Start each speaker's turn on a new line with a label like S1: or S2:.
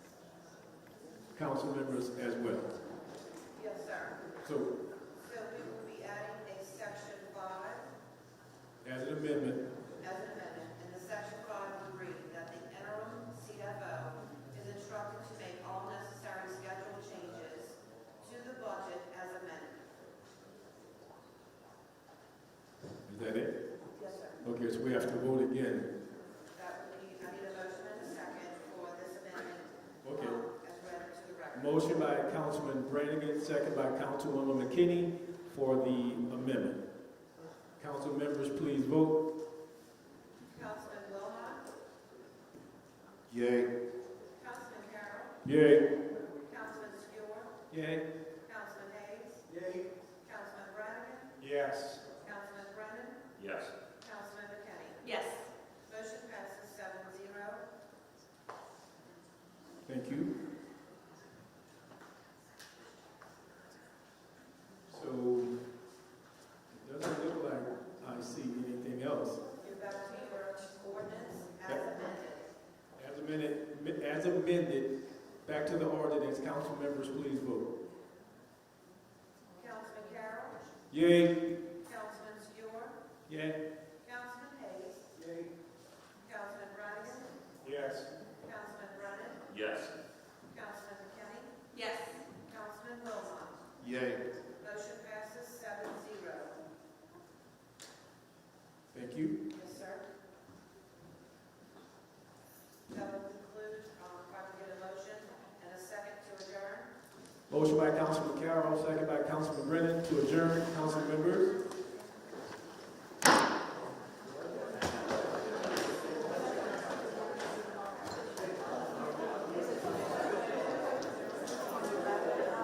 S1: council members as well.
S2: Yes, sir.
S1: So
S2: So we will be adding a section five
S1: as an amendment,
S2: as an amendment, and the section five would read that the interim CFO is instructed to make all necessary schedule changes to the budget as amended.
S1: is that it?
S2: Yes, sir.
S1: Okay, so we have to vote again.
S2: That would be, I need a motion and a second for this amendment.
S1: Okay.
S2: um, As read to the record.
S1: Motion by Councilman Brannigan, second by Councilwoman McKinney for the amendment. Council members, please vote.
S2: Councilman Wilmot,
S1: Yay.
S2: Councilman Carroll,
S1: Yay.
S2: Councilman Stewart,
S1: Yay.
S2: Councilman Hayes,
S1: Yay.
S2: Councilman Brannigan,
S1: Yes.
S2: Councilman Brennan,
S3: Yes.
S2: Councilman McKinney.
S4: Yes.
S2: Motion passes seven zero.
S1: Thank you. So, it doesn't look like I see anything else.
S2: You're back to your ordinance as
S1: Yep.
S2: amended.
S1: As amended, as amended, back to the ordinance, council members, please vote.
S2: Councilman Carroll,
S1: Yay.
S2: Councilman Stewart,
S1: Yay.
S2: Councilman Hayes,
S1: Yay.
S2: Councilman Brannigan,
S1: Yes.
S2: Councilman Brennan,
S3: Yes.
S2: Councilman McKinney,
S4: Yes.
S2: Councilman Wilmot.
S1: Yay.
S2: Motion passes seven zero.
S1: Thank you.
S2: Yes, sir. That will conclude, um, if I can get a motion and a second to adjourn.
S1: Motion by Councilman Carroll, second by Councilman Brennan to adjourn, council members.